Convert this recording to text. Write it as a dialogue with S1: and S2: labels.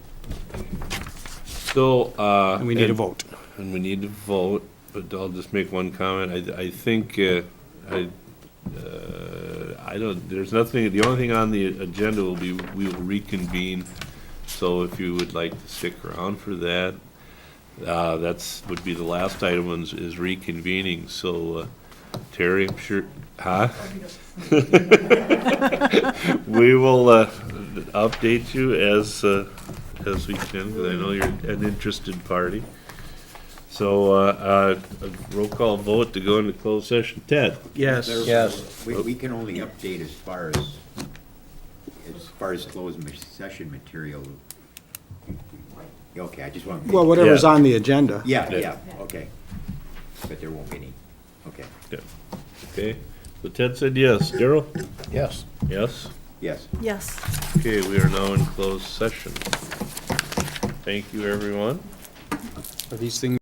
S1: still, uh.
S2: and we need a vote.
S1: And we need to vote, but I'll just make one comment. I, I think, uh, I, uh, I don't, there's nothing, the only thing on the agenda will be, we will reconvene. So if you would like to stick around for that, uh, that's, would be the last item is, is reconvening. So, uh, Terry, I'm sure, huh? We will, uh, update you as, uh, as we can, because I know you're an interested party. So, uh, uh, a roll call vote to go into closed session. Ted?
S2: Yes.
S3: Yes. We, we can only update as far as, as far as closed ma- session material. Okay, I just want.
S2: Well, whatever's
S1: Yeah.
S2: on the agenda.
S3: Yeah,
S1: Yeah.
S3: yeah, okay. But there won't be any, okay,
S1: Yeah. Okay, so Ted said yes. Daryl?
S4: Yes.
S1: Yes.
S3: yes.
S5: Yes.
S1: Okay, we are now in closed session. Thank you, everyone.
S2: Are these things